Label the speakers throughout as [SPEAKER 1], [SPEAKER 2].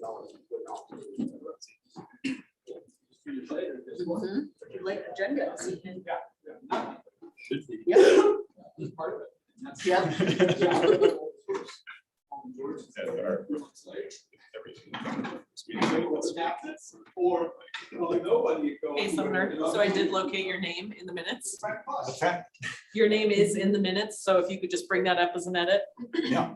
[SPEAKER 1] dollars would not be-
[SPEAKER 2] Mhm. Like agendas.
[SPEAKER 1] Should be.
[SPEAKER 2] Yeah.
[SPEAKER 1] That's part of it. And that's-
[SPEAKER 2] Yeah.
[SPEAKER 1] That are- Everything. What's happening? Or, well, nobody goes.
[SPEAKER 3] Hey Sumner, so I did locate your name in the minutes.
[SPEAKER 1] Right, plus.
[SPEAKER 3] Your name is in the minutes, so if you could just bring that up as an edit.
[SPEAKER 4] Yeah,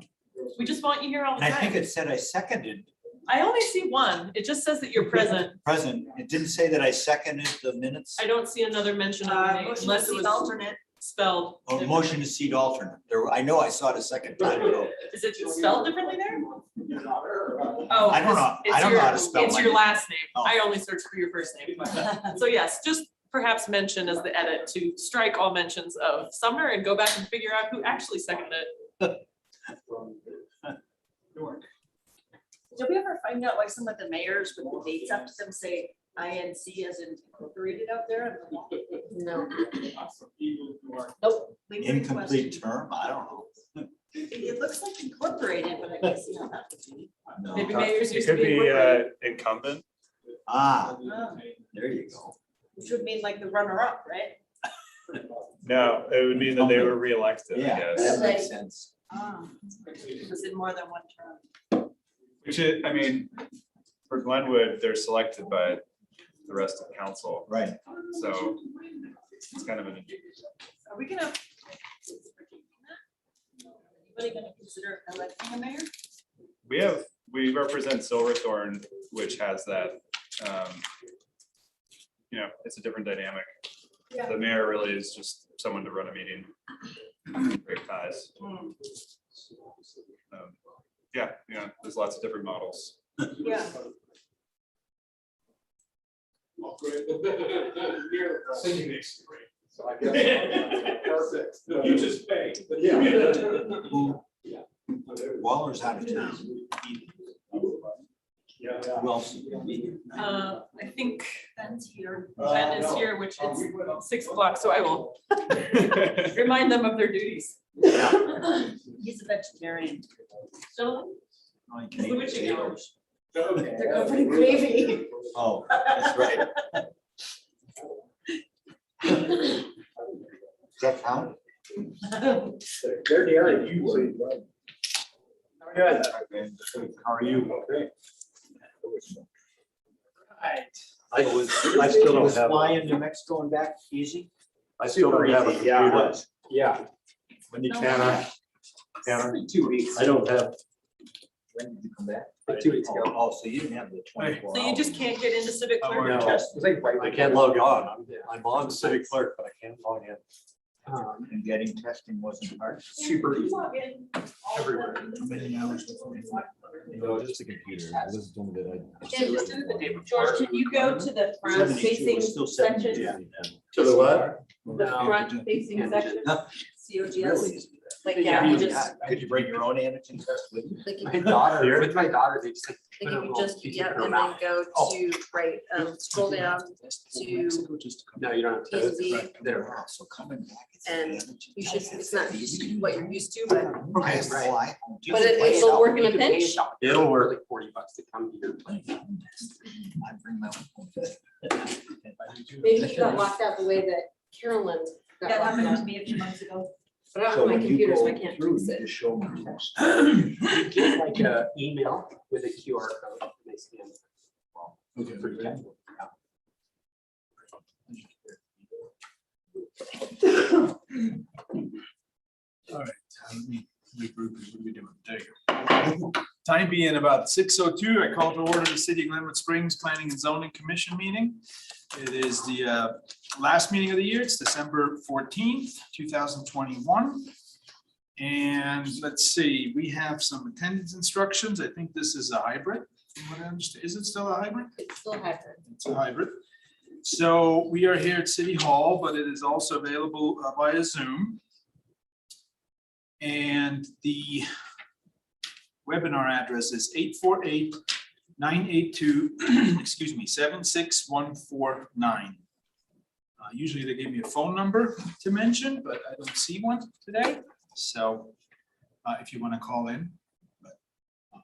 [SPEAKER 3] We just want you here all
[SPEAKER 4] and
[SPEAKER 3] the
[SPEAKER 4] I think
[SPEAKER 3] time.
[SPEAKER 4] it said I seconded
[SPEAKER 3] I only see one. It just says that you're present.
[SPEAKER 4] present. It didn't say that I seconded the minutes.
[SPEAKER 3] I don't see another mention of your
[SPEAKER 2] Uh,
[SPEAKER 3] name
[SPEAKER 2] motion to
[SPEAKER 3] unless it
[SPEAKER 2] seat
[SPEAKER 3] was
[SPEAKER 2] alternate.
[SPEAKER 3] spelled.
[SPEAKER 4] Or Oh, motion to seat alternate. There, were- I know I saw it a second time ago.
[SPEAKER 3] differently. Is it spelled differently there? Oh.
[SPEAKER 4] I don't know.
[SPEAKER 3] it's
[SPEAKER 4] I don't know
[SPEAKER 3] your-
[SPEAKER 4] how to spell
[SPEAKER 3] It's
[SPEAKER 4] my
[SPEAKER 3] your
[SPEAKER 4] name.
[SPEAKER 3] last name.
[SPEAKER 4] Oh.
[SPEAKER 3] I only searched for your first name. So yes, just perhaps mention as the edit to strike all mentions of Sumner and go back and figure out who actually seconded it.
[SPEAKER 2] Did we ever find out why some of the mayors with the dates up to them say INC as in incorporated up there? No. Nope. we
[SPEAKER 4] Incomplete
[SPEAKER 2] requested-
[SPEAKER 4] term? I don't know.
[SPEAKER 2] It looks like incorporated, but I can see how that could be.
[SPEAKER 4] No.
[SPEAKER 3] Maybe mayors
[SPEAKER 5] It
[SPEAKER 3] used to
[SPEAKER 5] could
[SPEAKER 3] be.
[SPEAKER 5] be
[SPEAKER 3] incorporated.
[SPEAKER 5] uh, incumbent.
[SPEAKER 4] Ah,
[SPEAKER 2] Oh,
[SPEAKER 4] there you go.
[SPEAKER 2] Which would mean like the runner-up, right?
[SPEAKER 5] No, it would mean that they were reelected, I
[SPEAKER 4] Yeah,
[SPEAKER 5] guess.
[SPEAKER 4] that makes sense.
[SPEAKER 2] Ah, Was in more than one term?
[SPEAKER 5] Which is, I mean, for Glenwood, they're selected by the rest of council,
[SPEAKER 4] Right.
[SPEAKER 5] so it's kind of an.
[SPEAKER 2] Are we gonna? Anybody gonna consider electing a mayor?
[SPEAKER 5] We have, we represent Silverthorne, which has that, um, you know, it's a different dynamic.
[SPEAKER 2] Yeah.
[SPEAKER 5] The mayor really is just someone to run a meeting. Great ties. Um, Yeah, yeah, there's lots of different models.
[SPEAKER 2] Yeah.
[SPEAKER 1] Singing makes it great. So I guess. Perfect.
[SPEAKER 6] You just pay.
[SPEAKER 4] Waller's out of town.
[SPEAKER 1] Yeah.
[SPEAKER 4] Who else?
[SPEAKER 3] Uh, I think
[SPEAKER 2] Ben's here.
[SPEAKER 7] Uh,
[SPEAKER 3] Ben is here, which is six o'clock, so I will
[SPEAKER 5] It's
[SPEAKER 3] remind them of their duties.
[SPEAKER 2] He's a vegetarian.
[SPEAKER 3] Gentlemen,
[SPEAKER 4] Oh, you
[SPEAKER 3] Is
[SPEAKER 4] can
[SPEAKER 3] the
[SPEAKER 4] eat
[SPEAKER 3] witching hour.
[SPEAKER 4] potatoes.
[SPEAKER 2] They're going for the gravy.
[SPEAKER 4] Oh, that's right. Does that count?
[SPEAKER 1] They're near you. Good.
[SPEAKER 4] How are you? I
[SPEAKER 7] I
[SPEAKER 4] was,
[SPEAKER 7] I still don't
[SPEAKER 4] was
[SPEAKER 7] have, a-
[SPEAKER 4] flying to Mexico and back easy.
[SPEAKER 7] I still don't have a
[SPEAKER 4] Yeah.
[SPEAKER 7] computer.
[SPEAKER 1] Yeah.
[SPEAKER 4] When did you,
[SPEAKER 7] Can uh, I, can
[SPEAKER 4] two weeks.
[SPEAKER 7] I, I don't have,
[SPEAKER 4] When did you come back?
[SPEAKER 7] Like two weeks ago.
[SPEAKER 4] Oh, so you didn't have the twenty-four.
[SPEAKER 3] So you just can't get into civic
[SPEAKER 5] Oh,
[SPEAKER 3] clerk?
[SPEAKER 7] no. I can't log on. I'm- I'm on the city clerk, but I can't log in.
[SPEAKER 4] hours. And getting testing wasn't hard.
[SPEAKER 7] Super easy.
[SPEAKER 2] Everywhere.
[SPEAKER 8] No, just a computer. I was doing it. I-
[SPEAKER 2] George, can you go to the front facing section,
[SPEAKER 7] To the what?
[SPEAKER 2] the front facing section?
[SPEAKER 4] No.
[SPEAKER 2] COGS,
[SPEAKER 4] Really easy.
[SPEAKER 2] like, yeah, you
[SPEAKER 4] Could you-
[SPEAKER 2] just,
[SPEAKER 4] Could you bring your own antigen test with you?
[SPEAKER 9] Like if
[SPEAKER 7] My daughter, with my daughter, they just.
[SPEAKER 9] like if you just, yeah, and then go
[SPEAKER 7] Oh.
[SPEAKER 9] to, right, um, scroll down, to-
[SPEAKER 7] No, you don't have
[SPEAKER 9] Is
[SPEAKER 7] to.
[SPEAKER 9] the-
[SPEAKER 7] There.
[SPEAKER 4] So coming back. it's
[SPEAKER 9] And
[SPEAKER 4] antigen
[SPEAKER 9] you should,
[SPEAKER 4] test.
[SPEAKER 9] it's not what you're used to, but
[SPEAKER 4] I
[SPEAKER 7] Right, right.
[SPEAKER 4] fly home.
[SPEAKER 9] But it- it'll work in a
[SPEAKER 7] You can pay
[SPEAKER 9] pinch.
[SPEAKER 7] shop. It'll work. Like Forty bucks to come here.
[SPEAKER 4] I bring my own.
[SPEAKER 9] maybe you got locked out the way that Carolyn
[SPEAKER 2] that
[SPEAKER 9] got locked
[SPEAKER 2] happened to
[SPEAKER 9] out.
[SPEAKER 2] me a few months ago.
[SPEAKER 9] But I
[SPEAKER 4] So
[SPEAKER 9] don't have
[SPEAKER 4] when
[SPEAKER 9] my
[SPEAKER 4] you
[SPEAKER 9] computer, so I
[SPEAKER 4] go
[SPEAKER 9] can't
[SPEAKER 4] through,
[SPEAKER 9] fix
[SPEAKER 4] you
[SPEAKER 9] it.
[SPEAKER 4] just show them the test.
[SPEAKER 7] You get like a email with a QR code. and they scan it. For you.
[SPEAKER 5] Time being about six oh two, I call to order the City of Glenwood Springs Planning and Zoning Commission meeting. It is the uh, last meeting of the year. It's December fourteenth, two thousand twenty-one. And let's see, we have some attendance instructions. I think this is a hybrid. from what I understand. Is it still a hybrid?
[SPEAKER 9] It's still happening.
[SPEAKER 5] It's a hybrid. So we are here at City Hall, but it is also available uh, via Zoom. And the webinar address is 848 982, excuse me, 76149. Uh, Usually they give me a phone number to mention, but I don't see one today. So uh, if you want to call in,